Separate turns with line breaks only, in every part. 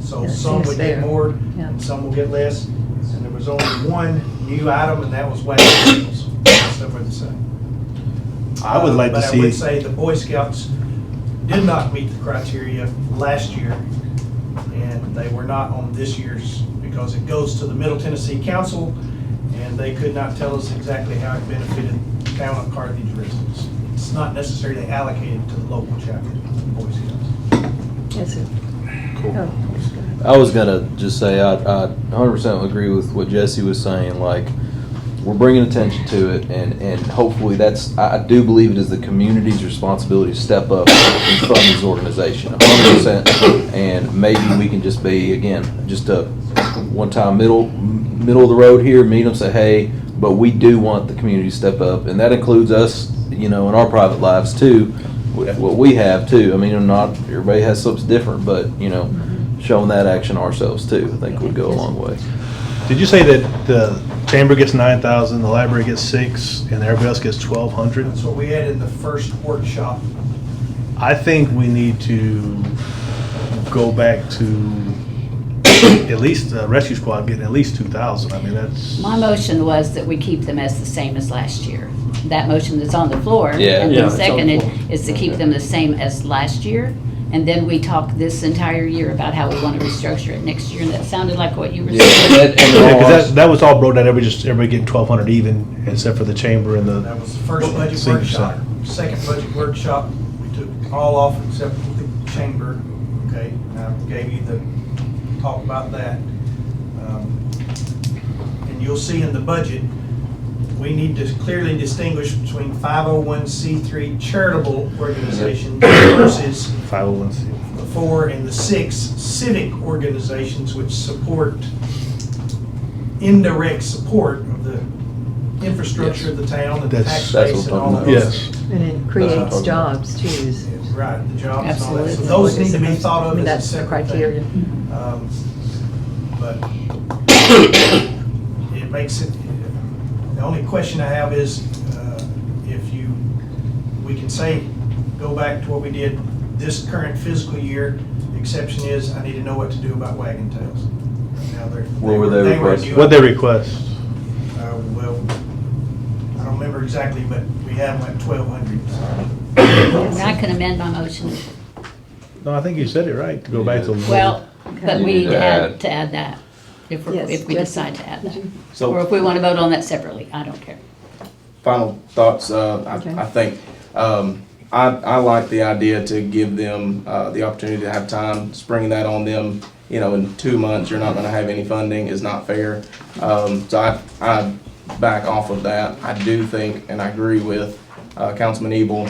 So
Yeah, it
some
seems
would get
fair.
more,
Yeah.
and some will get less. And there was only one new item, and that was wet tables. That's what we're saying.
I would like to
But I would
see,
say the Boy Scouts did not meet the criteria last year, and they were not on this year's, because it goes to the Middle Tennessee Council, and they could not tell us exactly how it benefited the town of Carthage residents. It's not necessarily allocated to the local chapter of the Boy Scouts.
Yes, sir. Oh,
I was gonna just say I, I 100% agree with what Jesse was saying. Like, we're bringing attention to it, and and hopefully that's I, I do believe it is the community's responsibility to step up and fund this organization 100. percent And maybe we can just be again just a one time middle middle of the road here. Meet them, say hey, but we do want the community to step up, and that includes us, you know, in our private lives too. With what we have too. I mean, not everybody has something different, but you know showing that action ourselves too, I think would go a long way.
did you say that the chamber gets nine thousand, the library gets six, and everybody else gets twelve hundred?
That's what we had in the first workshop.
I think we need to go back to at least the rescue squad getting at least two thousand. I mean, that's.
My motion was that we keep them as the same as last year. That motion that's on the floor.
Yeah. Yeah,
And then
it's on the
seconded
floor.
is to keep them the same as last year. And then we talk this entire year about how we want to restructure it next year. And that sounded like what you were saying.
Yeah, 'cause that, that was all brought down, everybody just, everybody getting twelve hundred even, except for the chamber and
That
the,
was the first budget
Senior
workshop. Second budget workshop, we took all off except the chamber, okay? And I gave you the talk about that. Um, And you'll see in the budget, we need to clearly distinguish between 501c3 charitable organizations versus
five oh one C.
the four and the six civic organizations which support indirect support of the infrastructure of the town and the tax
That's-
that's
base
what
and
I'm
all of
talking
those.
about.
Yes.
And it creates jobs too. is-
Right, the jobs and all that. So
Absolutely.
those need to be thought
I
of as
mean,
a
That's the
separate thing.
criteria.
Um, But it makes it, the only question I have is uh, if you, we can say, go back to what we did this current fiscal year. The Exception is, I need to know what to do about wagon tails. Now, they're-
What were they
were
requesting?
new.
What'd they request?
Uh, Well, I don't remember exactly, but we had like 1,200.
And I can amend my motion.
No, I think you said it right, to go back to.
Well, but
You
we
need
need
to
to
add.
add, to add that, if, we're-
Yes,
if we
Jesse,
decide to add
did
that.
you-
Or if
So,
we want to vote on that separately, I don't care.
final thoughts, uh,
Okay.
I, I think, um, I, I like the idea to give them, uh, the opportunity to have time, springing that on them, you know, in two months, you're not gonna have any funding is not fair. Um, so I, I back off of that. I do think, and I agree with, uh, Councilman Ebel,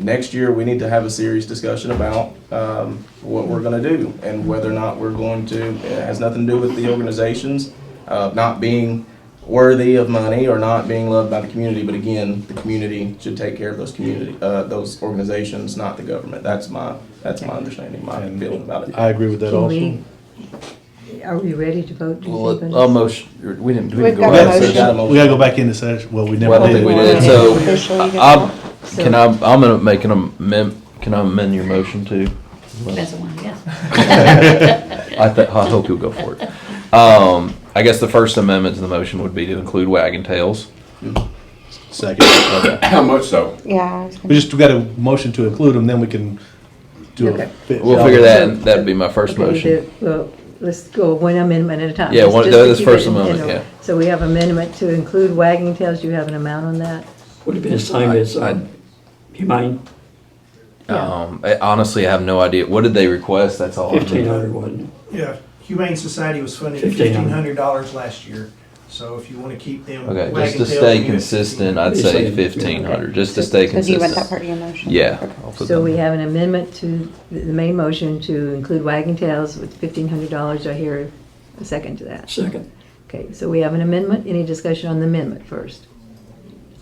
next year, we need to have a serious discussion about um, what we're going to do and whether or not we're going to, it has nothing to do with the organizations uh, not being worthy of money or not being loved by the community, but again, the community should take care of those community, uh, those organizations, not the government. That's my, that's my understanding, my feeling about it.
I agree with that
Can
also.
we, are we ready to vote? do you
Well,
think,
uh, almost, or we didn't, we
We've
didn't go
got
back. to
a motion.
that.
We gotta go back into session, well, we
Well, I
never
don't think we
did.
did, so,
Officially, you
I'm,
So-
can I, I'm gonna make an amend, can I amend your motion too?
That's the one, yeah.
I thi- I hope you'll go for it. Um, I guess the first amendment to the motion would be to include wagon tails.
Second.
How much so?
Yeah. I was
We
gonna-
just got a motion to include them, then we can do
Okay.
a. fit-
We'll figure that, that'd be my first
Okay,
motion.
the- Well, let's go one amendment at a time.
Yeah,
Let's
one-
just
that's
keep it
first
in- in
amendment,
order.
yeah.
So we have amendment to include wagging tails. Do you have an amount on that?
Would have been the same as, uh, humane,
Um, I honestly, I have no idea. What did they request? That's all. I
fifteen
know.
hundred, wasn't it?
Yeah, Humane Society was funded fifteen hundred
$1,500.
dollars last year, so if you wanna keep them.
Okay,
wagging
just to
tails,
stay
you have
consistent,
15.
I'd
It's
say
like-
fifteen hundred, just to stay
So do you want
consistent.
that part of your motion?
Yeah.
Okay.
I'll put
So
that.
we have an amendment to the the main motion to include wagging tails with fifteen hundred dollars. I hear a second to that.
Second.
Okay, so we have an amendment. Any discussion on the amendment first?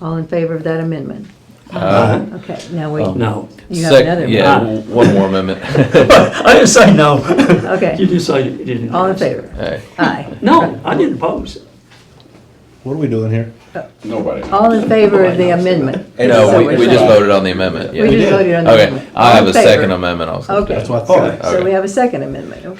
All in favor of that amendment?
Uh,
Okay, now we,
No.
you have
sec-
another.
Yeah,
one.
w- one more amendment.
I didn't say no.
amendment.
You
Okay,
did say you didn't.
all in favor?
Hey,
Aye.
No, I didn't oppose it.
What are we doing here?
Nobody.
All in favor of the amendment?
uh,
No, we,
we're
we just
saying-
voted on the amendment,
We
yeah.
just voted on the
Okay,
amendment.
I have a
All in favor?
second amendment also.
Okay.
That's what I thought.
So we have a second amendment,